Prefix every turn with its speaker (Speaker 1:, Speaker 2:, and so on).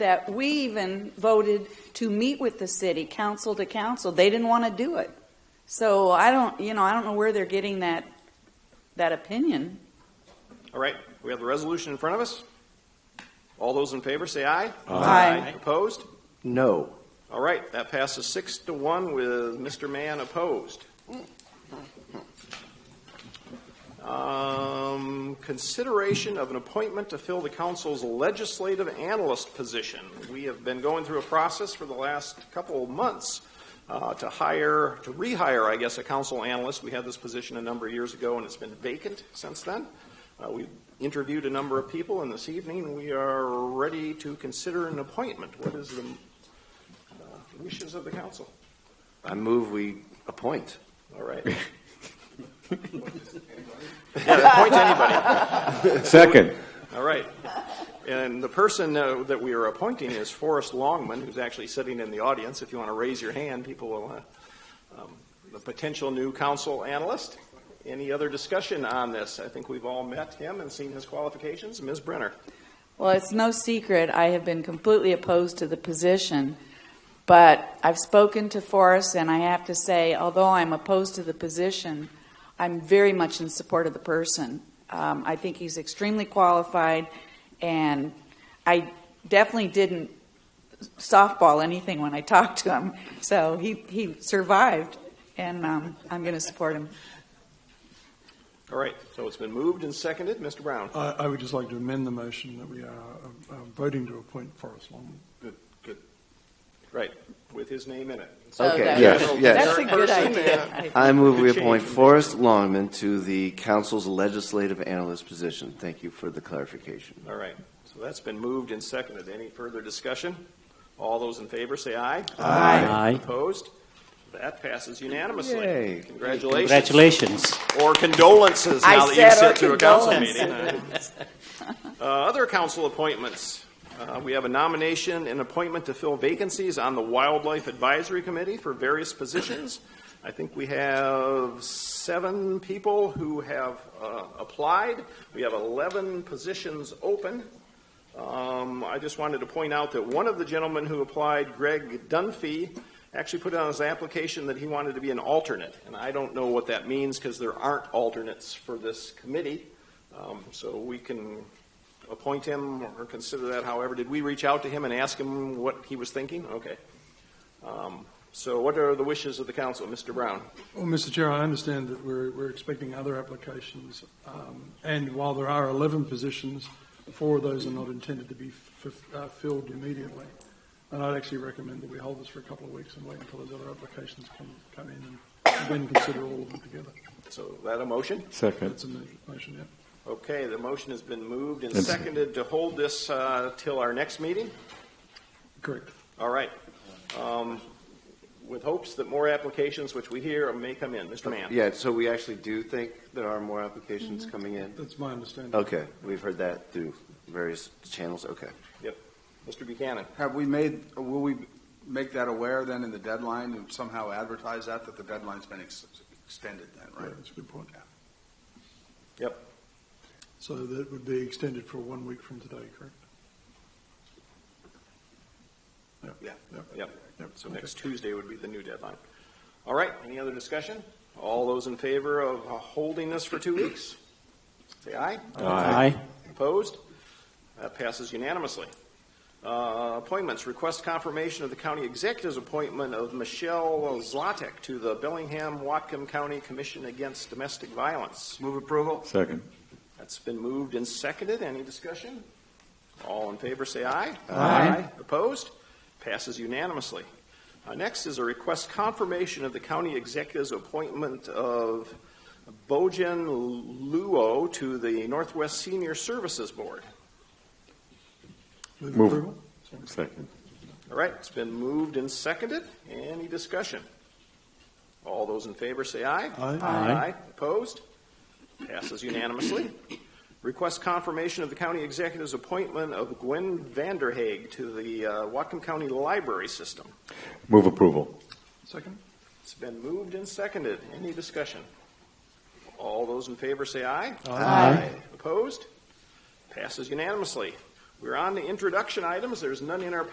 Speaker 1: that we even voted to meet with the city, council to council. They didn't want to do it. So I don't, you know, I don't know where they're getting that, that opinion.
Speaker 2: All right, we have the resolution in front of us. All those in favor, say aye.
Speaker 1: Aye.
Speaker 2: Opposed?
Speaker 3: No.
Speaker 2: All right, that passes six to one with Mr. Mann opposed. Um, Consideration of an appointment to fill the council's legislative analyst position. We have been going through a process for the last couple of months uh, to hire, to rehire, I guess, a council analyst. We had this position a number of years ago, and it's been vacant since then. Uh, We interviewed a number of people, and this evening, we are ready to consider an appointment. What is the wishes of the council?
Speaker 3: I move we appoint.
Speaker 2: All right. Yeah, Appoint anybody.
Speaker 4: Second.
Speaker 2: All right. And the person uh, that we are appointing is Forrest Longman, who's actually sitting in the audience. If you want to raise your hand, people will, uh, um, the potential new council analyst. Any other discussion on this? I think we've all met him and seen his qualifications. Ms. Brenner?
Speaker 1: Well, it's no secret, I have been completely opposed to the position, but I've spoken to Forrest, and I have to say, although I'm opposed to the position, I'm very much in support of the person. Um, I think he's extremely qualified, and I definitely didn't softball anything when I talked to him, so he, he survived, and um, I'm going to support him.
Speaker 2: All right, so it's been moved and seconded. Mr. Brown?
Speaker 5: I, I would just like to amend the motion that we are uh, uh, voting to appoint Forrest Longman.
Speaker 2: Right, with his name in it.
Speaker 3: Okay.
Speaker 1: that-
Speaker 4: Yes, yes.
Speaker 1: That's a good
Speaker 2: Person,
Speaker 1: idea.
Speaker 2: uh,
Speaker 1: I-
Speaker 3: I move we
Speaker 2: Good
Speaker 3: appoint
Speaker 2: change.
Speaker 3: Forrest Longman to the council's legislative analyst position. Thank you for the clarification.
Speaker 2: All right, so that's been moved and seconded. Any further discussion? All those in favor, say aye.
Speaker 4: Aye.
Speaker 2: Opposed? That passes unanimously.
Speaker 3: Yay.
Speaker 2: Congratulations.
Speaker 6: Congratulations.
Speaker 2: Or condolences now
Speaker 1: I
Speaker 2: that you've
Speaker 1: said our
Speaker 2: sit through a council meeting.
Speaker 1: condolences.
Speaker 2: Uh, Other council appointments. Uh, We have a nomination and appointment to fill vacancies on the Wildlife Advisory Committee for various positions. I think we have seven people who have uh, applied. We have 11 positions open. Um, I just wanted to point out that one of the gentlemen who applied, Greg Dunphy, actually put on his application that he wanted to be an alternate. And I don't know what that means because there aren't alternates for this committee. Um, So we can appoint him or consider that however. Did we reach out to him and ask him what he was thinking? Okay. Um, So what are the wishes of the council, Mr. Brown?
Speaker 5: Well, Mr. Chair, I understand that we're, we're expecting other applications, um, and while there are 11 positions, four of those are not intended to be f- uh, filled immediately. And I'd actually recommend that we hold this for a couple of weeks and wait until those other applications come, come in and then consider all of them together.
Speaker 2: So that a motion?
Speaker 4: Second.
Speaker 5: That's a mo- motion, yeah.
Speaker 2: Okay, the motion has been moved and
Speaker 4: It's-
Speaker 2: seconded to hold this uh, till our next meeting?
Speaker 5: Correct.
Speaker 2: All right. Um, With hopes that more applications, which we hear, may come in. Mr. Mann?
Speaker 3: Yeah, so we actually do think there are more applications coming in?
Speaker 5: That's my understanding.
Speaker 3: Okay, we've heard that through various channels, okay.
Speaker 2: Mr. Buchanan?
Speaker 7: Have we made, will we make that aware then in the deadline and somehow advertise that, that the deadline's been ex- extended then,
Speaker 5: Right,
Speaker 7: right?
Speaker 5: that's a good point.
Speaker 2: Yep.
Speaker 5: So that would be extended for one week from today, correct?
Speaker 2: Yeah.
Speaker 5: Yep.
Speaker 2: Yep.
Speaker 5: Yep.
Speaker 2: So next Tuesday would be the new deadline. All right, any other discussion? All those in favor of uh, holding this for two weeks? Say aye.
Speaker 6: Aye.
Speaker 2: Opposed? That passes unanimously. Uh, Appointments, request confirmation of the county executive's appointment of Michelle Zlotek to the Bellingham-Watcom County Commission Against Domestic Violence.
Speaker 7: Move approval?
Speaker 4: Second.
Speaker 2: That's been moved and seconded. Any discussion? All in favor, say aye. Opposed? Passes unanimously. Uh, Next is a request confirmation of the county executive's appointment of Bojan Luo to the Northwest Senior Services Board.
Speaker 5: Move
Speaker 4: Move.
Speaker 5: approval?
Speaker 4: Second.
Speaker 2: All right, it's been moved and seconded. Any discussion? All those in favor say aye.
Speaker 5: Aye.
Speaker 6: Aye.
Speaker 2: Opposed? Passes unanimously. Request confirmation of the county executive's appointment of Gwen Vanderhaeg to the uh, Whatcom County Library System.
Speaker 4: Move approval.
Speaker 5: Second?
Speaker 2: It's been moved and seconded. Any discussion? All those in favor say aye.
Speaker 5: Aye.
Speaker 2: Opposed? Passes unanimously. We're on the introduction items. There's none in our